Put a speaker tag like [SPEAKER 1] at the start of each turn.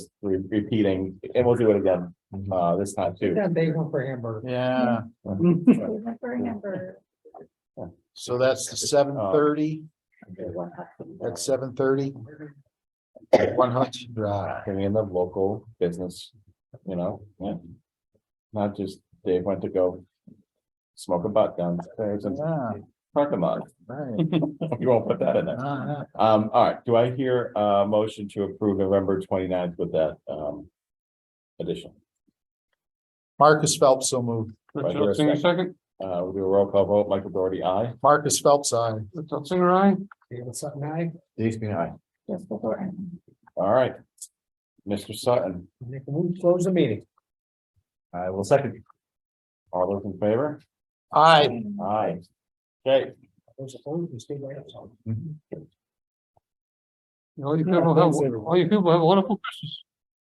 [SPEAKER 1] re- repeating, and we'll do it again, uh, this time too.
[SPEAKER 2] That big one for hamburger.
[SPEAKER 3] Yeah,
[SPEAKER 4] Remember, number.
[SPEAKER 3] so that's the seven thirty, that's seven thirty. One Hudson Drive.
[SPEAKER 1] Bring in the local business, you know, yeah. Not just Dave went to go smoke a butt downstairs and
[SPEAKER 3] Yeah,
[SPEAKER 1] park a lot.
[SPEAKER 3] right.
[SPEAKER 1] You won't put that in there.
[SPEAKER 3] Uh-huh.
[SPEAKER 1] Um, all right, do I hear a motion to approve November 29th with that, um, addition?
[SPEAKER 3] Marcus Phelps, so moved.
[SPEAKER 1] Right here, a
[SPEAKER 5] Singer,
[SPEAKER 1] second.
[SPEAKER 5] second.
[SPEAKER 1] Uh, we'll do a roll call vote, Michael Doherty, aye.
[SPEAKER 3] Marcus Phelps, I.
[SPEAKER 5] Richard Singer, aye.
[SPEAKER 2] David Sutton, I
[SPEAKER 1] Dave Spina, aye.
[SPEAKER 4] Just before.
[SPEAKER 1] All right. Mr. Sutton,
[SPEAKER 2] make a move, to close the meeting.
[SPEAKER 1] I will second. All those in favor?
[SPEAKER 3] I.
[SPEAKER 1] Aye. Okay.
[SPEAKER 2] Those opposed, you stay right up.
[SPEAKER 1] Mm-hmm.
[SPEAKER 5] All you people have, all you people have a wonderful Christmas.